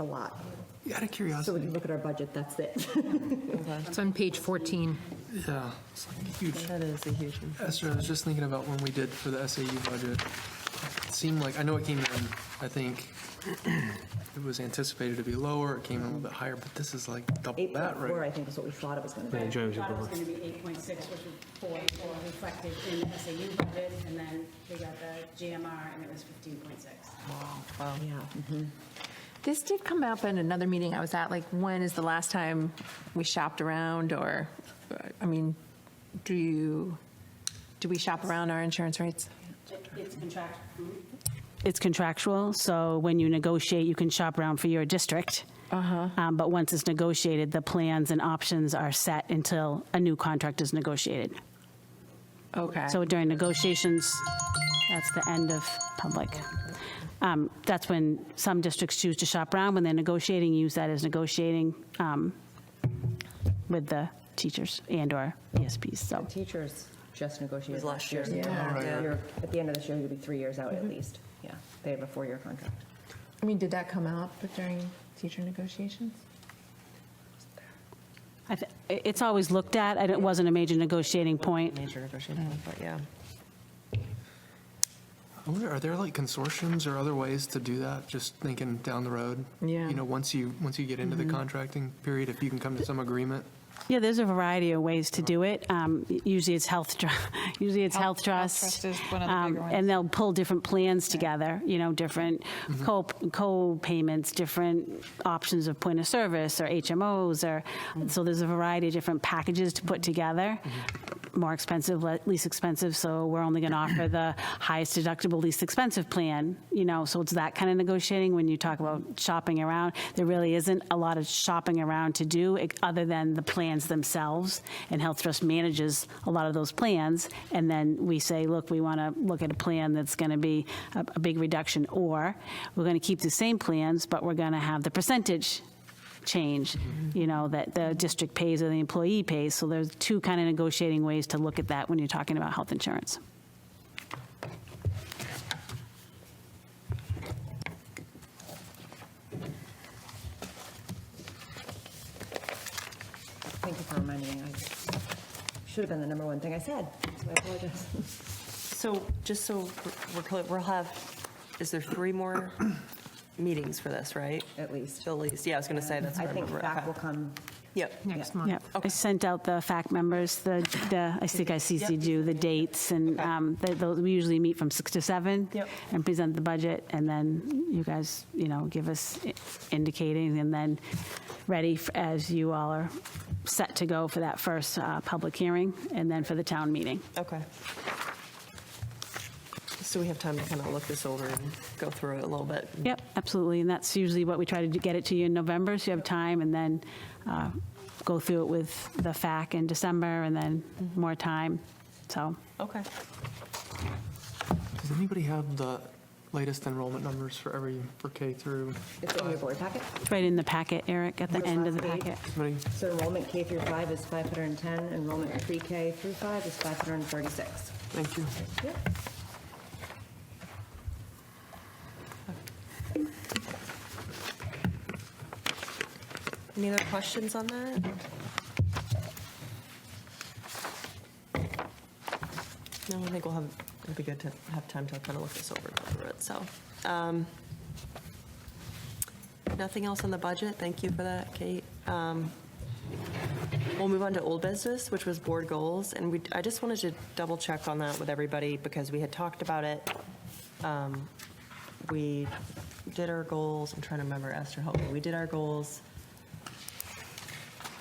a lot. Out of So curiosity, when you look at our budget, that's it. It's on page 14. yeah, it's like huge. That is a huge one. Esther, I was just thinking about when we did for the SAU budget. It seemed like, I know it came in, I think it was anticipated to be lower, it came in a little bit higher, but this is like double that, 8.4, right? I think, is what we thought it was going to Yeah, be. Joe's Thought it was above. going to be 8.6, which was 4.4 reflected in the SAU budget, and then we got the GMR, and it was 15.6. Yeah. This did come up in another meeting I was at, like, when is the last time we shopped around, or, I mean, do you, do we shop around our insurance rates? It- It's hmm? contractual. It's contractual, so when you negotiate, you can shop around for your district. Um, But once it's negotiated, the plans and options are set until a new contract is negotiated. Okay. So during negotiations, that's the end of public. Um, That's when some districts choose to shop around, when they're negotiating, use that as negotiating um, with the teachers and/or ESPs, so. Teachers just negotiated was last last year. year. Yeah. You're- At the end of this year, you'll be three years out at least. Yeah. They have a four-year contract. I mean, did that come up during teacher negotiations? I thi- i- It's always looked at, and it wasn't a major negotiating point. Major negotiation, Mm-hmm. but yeah. I wonder, Are there like consortiums or other ways to do that, just thinking down the road? Yeah. You know, once you, once you get into the contracting period, if you can come to some agreement? Yeah, there's a variety of ways to do it. Um, Usually it's health, tru- usually it's health Mm-hmm. Health- health trust. trust is one of the um, bigger ones. And they'll pull different plans together, you know, different Mm-hmm. co- co-payments, different options of point of service or HMOs or, Mm-hmm. so there's a variety of different packages to put together. Mm-hmm. More expensive, le- least expensive, so we're only going to offer the highest deductible, least expensive plan, you know, so it's that kind of negotiating when you talk about shopping around. There really isn't a lot of shopping around to do, ex- other than the plans themselves, and Health Trust manages a lot of those plans, and then we say, look, we want to look at a plan that's going to be a, a big reduction, or we're going to keep the same plans, but we're going to have the percentage change, you know, that the district pays or the employee pays, so there's two kind of negotiating ways to look at that when you're talking about health insurance. Thank you for reminding me. I should have been the number one thing I said. So I apologize. So just so we're clear, we'll have, is there three more meetings for this, right? At least. At least, yeah, I was going to say, that's I what I think remember. back Okay. will come. Yep. Next Yeah, month. I sent out the fact members, the, the, I think I CC'd you, the dates, and um, they- they'll- we usually meet from 6 to 7. Yep. And present the budget, and then you guys, you know, give us i- indicating, and then ready f- as you all are set to go for that first uh, public hearing, and then for the town meeting. Okay. So we have time to kind of look this over and go through it a little bit. Yep, absolutely, and that's usually what we try to do- get it to you in November, so you have time, and then uh, go through it with the FAC in December, and then more time, so. Okay. Does anybody have the latest enrollment numbers for every, for K through? It's in your board packet. It's right in the packet, Eric, at the Which end of the last page? packet. Somebody? So enrollment K through 5 is 510. Enrollment pre-K through 5 is 536. Thank you. Any other questions on that? No, I think we'll have, it'll be good to have time to kind of look this over and go through it, so. um, Nothing else on the budget, thank you for that, Kate. Um, We'll move on to old business, which was board goals, and we, I just wanted to double check on that with everybody, because we had talked about it. Um, We did our goals, I'm trying to remember, Esther, help me, we did our goals.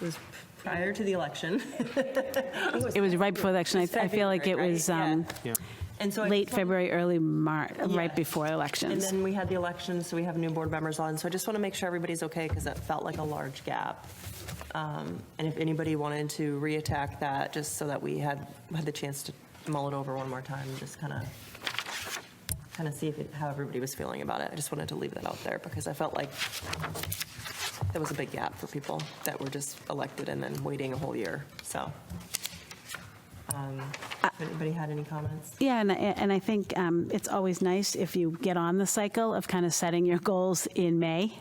It was prior to the election. It was right before the election, I I feel like it February, was right? um, Yeah. And so I late just wanna- February, early March, right Yeah. before And elections. then we had the election, so we have new board members on. So I just want to make sure everybody's okay because that felt like a large gap. Um, And if anybody wanted to reattack that, just so that we had, had the chance to mull it over one more time and just kind of, kind of see if, it- how everybody was feeling about it. I just wanted to leave that out there because I felt like there was a big gap for people that were just elected and then waiting a whole year, so. um, if Anybody had any comments? Yeah, and, I- and I think um, it's always nice if you get on the cycle of kind of setting your goals in May